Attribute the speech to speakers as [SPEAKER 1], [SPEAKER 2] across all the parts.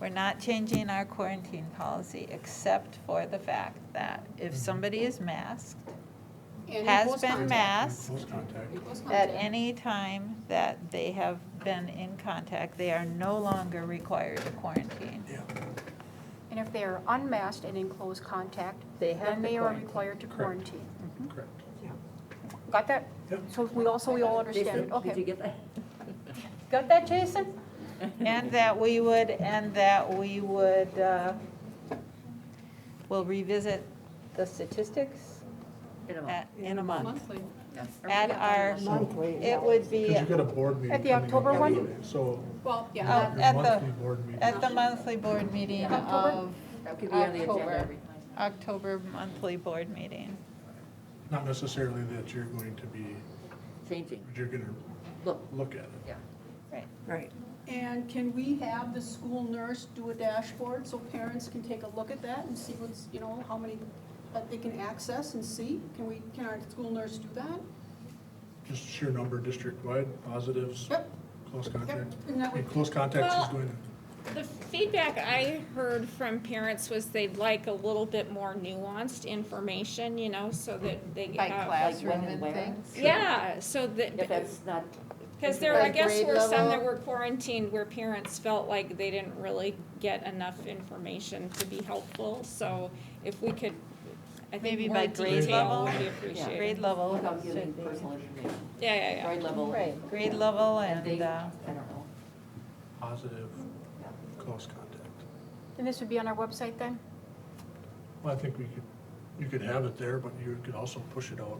[SPEAKER 1] We're not changing our quarantine policy, except for the fact that if somebody is masked,
[SPEAKER 2] And
[SPEAKER 1] Has
[SPEAKER 2] close
[SPEAKER 1] been
[SPEAKER 2] contact.
[SPEAKER 1] masked.
[SPEAKER 3] Close contact.
[SPEAKER 2] In close
[SPEAKER 1] at
[SPEAKER 2] contact.
[SPEAKER 1] any time that they have been in contact, they are no longer required to quarantine.
[SPEAKER 3] Yeah,
[SPEAKER 4] And if they are unmasked and in close contact,
[SPEAKER 1] They have
[SPEAKER 4] then
[SPEAKER 1] to
[SPEAKER 4] they are
[SPEAKER 1] quarantine.
[SPEAKER 4] required to
[SPEAKER 3] Correct.
[SPEAKER 4] quarantine.
[SPEAKER 3] correct.
[SPEAKER 4] Got that?
[SPEAKER 3] Yep.
[SPEAKER 4] So we also, we all understand, it.
[SPEAKER 5] Jason, Did you
[SPEAKER 4] okay.
[SPEAKER 5] get that?
[SPEAKER 4] Got that, Jason?
[SPEAKER 1] And that we would, and that we would, uh, we'll revisit the statistics
[SPEAKER 5] In a month.
[SPEAKER 1] at- in a month.
[SPEAKER 2] Monthly.
[SPEAKER 5] Yeah.
[SPEAKER 1] At our, it would be,
[SPEAKER 3] Because you got
[SPEAKER 1] oh,
[SPEAKER 3] a board meeting.
[SPEAKER 4] At the
[SPEAKER 3] coming up
[SPEAKER 4] October one?
[SPEAKER 3] anyway, So.
[SPEAKER 2] Well, yeah,
[SPEAKER 1] at
[SPEAKER 3] your monthly
[SPEAKER 1] the,
[SPEAKER 3] board meeting.
[SPEAKER 1] at the monthly board meeting of,
[SPEAKER 4] October?
[SPEAKER 5] That could be on the agenda
[SPEAKER 2] October.
[SPEAKER 5] every time.
[SPEAKER 1] October monthly board meeting.
[SPEAKER 3] Not necessarily that you're going to be,
[SPEAKER 5] Changing,
[SPEAKER 3] but you're gonna
[SPEAKER 5] look,
[SPEAKER 3] look at it.
[SPEAKER 5] yeah.
[SPEAKER 1] Right.
[SPEAKER 6] Right.
[SPEAKER 2] and can we have the school nurse do a dashboard so parents can take a look at that and see what's, you know, how many that they can access and see? Can we, can our school nurse do that?
[SPEAKER 3] Just sheer number district-wide, positives,
[SPEAKER 2] Yep,
[SPEAKER 3] close
[SPEAKER 2] yep,
[SPEAKER 3] contact.
[SPEAKER 2] and that would
[SPEAKER 3] And close contacts is
[SPEAKER 7] Well-
[SPEAKER 3] going to.
[SPEAKER 7] The feedback I heard from parents was they'd like a little bit more nuanced information, you know, so that they.
[SPEAKER 1] By
[SPEAKER 7] have-
[SPEAKER 1] classroom
[SPEAKER 5] when and
[SPEAKER 1] and
[SPEAKER 5] where?
[SPEAKER 1] things.
[SPEAKER 7] Yeah, so
[SPEAKER 5] If
[SPEAKER 7] that,
[SPEAKER 5] that's not.
[SPEAKER 7] because there, I
[SPEAKER 1] By
[SPEAKER 7] guess,
[SPEAKER 1] grade
[SPEAKER 7] were some that
[SPEAKER 1] level?
[SPEAKER 7] were quarantined where parents felt like they didn't really get enough information to be helpful, so if we could, I
[SPEAKER 1] Maybe
[SPEAKER 7] think more
[SPEAKER 1] by grade
[SPEAKER 7] detail
[SPEAKER 1] level?
[SPEAKER 7] would be
[SPEAKER 1] Grade
[SPEAKER 7] appreciated.
[SPEAKER 1] level
[SPEAKER 5] Without giving
[SPEAKER 1] should be,
[SPEAKER 5] personal information,
[SPEAKER 7] Yeah, yeah, yeah.
[SPEAKER 5] grade level.
[SPEAKER 1] right, grade level and,
[SPEAKER 5] They,
[SPEAKER 1] uh,
[SPEAKER 5] I don't know.
[SPEAKER 3] Positive, close contact.
[SPEAKER 4] And this would be on our website then?
[SPEAKER 3] Well, I think we could, you could have it there, but you could also push it out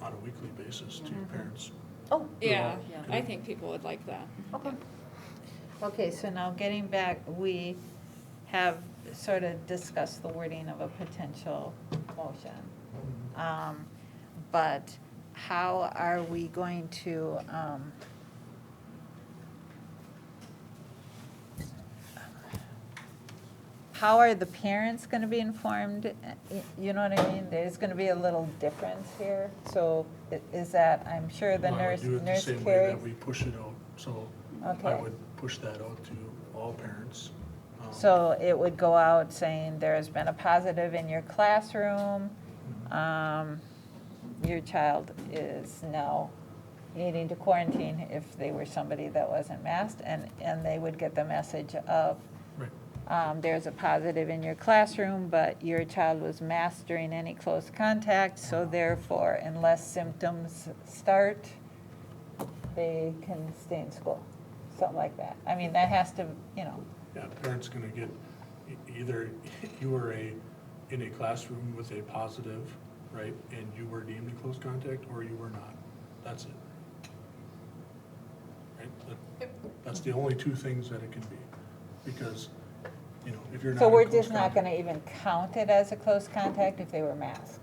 [SPEAKER 3] on a weekly basis to your parents.
[SPEAKER 4] Oh,
[SPEAKER 7] Yeah,
[SPEAKER 5] Yeah.
[SPEAKER 7] I think people would like that.
[SPEAKER 4] okay.
[SPEAKER 1] Okay, so now getting back, we have sort of discussed the wording of a potential motion. Um, But how are we going to, um, how are the parents going to be informed? Y- You know what I mean? There's going to be a little difference here. So i- is that, I'm sure the
[SPEAKER 3] Well, I would
[SPEAKER 1] nurse,
[SPEAKER 3] do it the
[SPEAKER 1] nurse
[SPEAKER 3] same way
[SPEAKER 1] carries.
[SPEAKER 3] that We push it out, so I
[SPEAKER 1] Okay.
[SPEAKER 3] would push that out to all parents. um,
[SPEAKER 1] So it would go out saying there has been a positive in your classroom. Um, Your child is now needing to quarantine if they were somebody that wasn't masked. And, and they would get the message of,
[SPEAKER 3] Right.
[SPEAKER 1] um, there's a positive in your classroom, but your child was masked during any close contact. So therefore, unless symptoms start, they can stay in school, something like that. I mean, that has to, you know.
[SPEAKER 3] Yeah, parents gonna get, e- either you were a, in a classroom with a positive, right, and you were deemed a close contact, or you were not. That's it. Right, that, that's the only two things that it can be, because, you know, if you're not.
[SPEAKER 1] So
[SPEAKER 3] in
[SPEAKER 1] we're
[SPEAKER 3] close
[SPEAKER 1] just not
[SPEAKER 3] contact,
[SPEAKER 1] gonna even count it as a close contact if they were masked?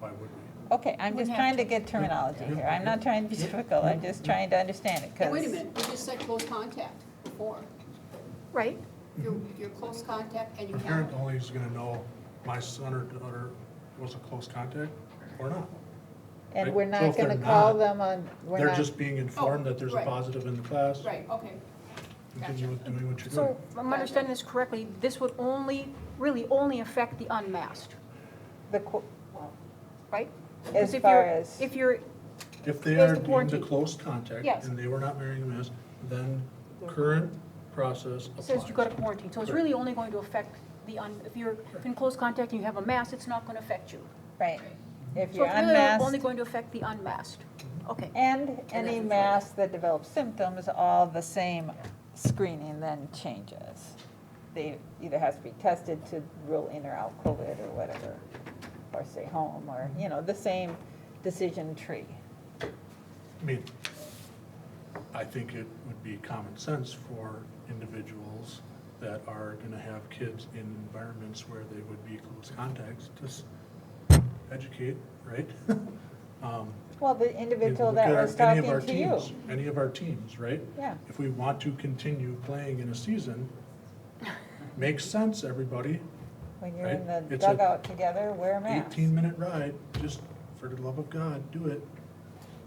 [SPEAKER 3] Why would we?
[SPEAKER 1] Okay, I'm just
[SPEAKER 4] Wouldn't
[SPEAKER 1] trying to get terminology here, I'm not trying to be difficult, I'm just trying to understand it,
[SPEAKER 2] Hey,
[SPEAKER 1] because.
[SPEAKER 2] Wait a minute, we just said close contact before.
[SPEAKER 4] Right?
[SPEAKER 2] You're, you're close contact and you
[SPEAKER 3] A
[SPEAKER 2] have.
[SPEAKER 3] parent only is gonna know my son or daughter was a close contact or not.
[SPEAKER 1] And we're
[SPEAKER 3] So
[SPEAKER 1] not
[SPEAKER 3] if they're
[SPEAKER 1] gonna call
[SPEAKER 3] not,
[SPEAKER 1] them on, we're
[SPEAKER 3] They're
[SPEAKER 1] not,
[SPEAKER 3] just
[SPEAKER 4] Oh,
[SPEAKER 3] being informed that there's a
[SPEAKER 2] right.
[SPEAKER 3] positive in the class,
[SPEAKER 2] Right, okay.
[SPEAKER 3] continue with doing what you're doing.
[SPEAKER 4] So if I'm understanding this correctly, this would only, really only affect the unmasked,
[SPEAKER 1] the, qu-
[SPEAKER 4] right?
[SPEAKER 1] as
[SPEAKER 4] Because if
[SPEAKER 1] far
[SPEAKER 4] you're-
[SPEAKER 1] as,
[SPEAKER 4] If you're,
[SPEAKER 3] If they
[SPEAKER 4] There's
[SPEAKER 3] are
[SPEAKER 4] the
[SPEAKER 3] deemed a
[SPEAKER 4] quarantine.
[SPEAKER 3] close contact
[SPEAKER 4] Yes.
[SPEAKER 3] and they were not wearing a mask, then current process
[SPEAKER 4] says you go to
[SPEAKER 3] applies.
[SPEAKER 4] quarantine, so it's
[SPEAKER 3] Correct.
[SPEAKER 4] really only going to affect the un, if you're in close contact and you have a mask, it's not going to affect you.
[SPEAKER 1] right, if
[SPEAKER 4] So
[SPEAKER 1] you're
[SPEAKER 4] it's really only
[SPEAKER 1] unmasked,
[SPEAKER 4] going to affect the unmasked. Okay.
[SPEAKER 1] and any
[SPEAKER 5] that's-
[SPEAKER 1] mask that develops symptoms, all the same screening then changes. They either has to be tested to rule in or out COVID or whatever, or stay home, or, you know, the same decision tree.
[SPEAKER 3] I mean, I think it would be common sense for individuals that are gonna have kids in environments where they would be close contacts, just educate, right? Um,
[SPEAKER 1] Well, the individual
[SPEAKER 3] look
[SPEAKER 1] that
[SPEAKER 3] at our-
[SPEAKER 1] was
[SPEAKER 3] any of
[SPEAKER 1] talking
[SPEAKER 3] our
[SPEAKER 1] to you.
[SPEAKER 3] teams- Any of our teams, right?
[SPEAKER 1] Yeah,
[SPEAKER 3] if we want to continue playing in a season, makes sense, everybody.
[SPEAKER 1] when you're in
[SPEAKER 3] Right?
[SPEAKER 1] the
[SPEAKER 3] It's a
[SPEAKER 1] dugout together, wear a mask.
[SPEAKER 3] Eighteen-minute ride, just for the love of God, do it,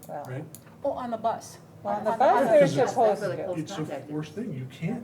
[SPEAKER 1] Well,
[SPEAKER 3] right?
[SPEAKER 4] Oh, on the bus.
[SPEAKER 1] On the bus,
[SPEAKER 4] On the bus.
[SPEAKER 1] they're
[SPEAKER 3] Because it's-
[SPEAKER 1] supposed
[SPEAKER 5] That's where the
[SPEAKER 1] to.
[SPEAKER 5] close
[SPEAKER 3] It's a
[SPEAKER 5] contact is.
[SPEAKER 3] forced thing, you can't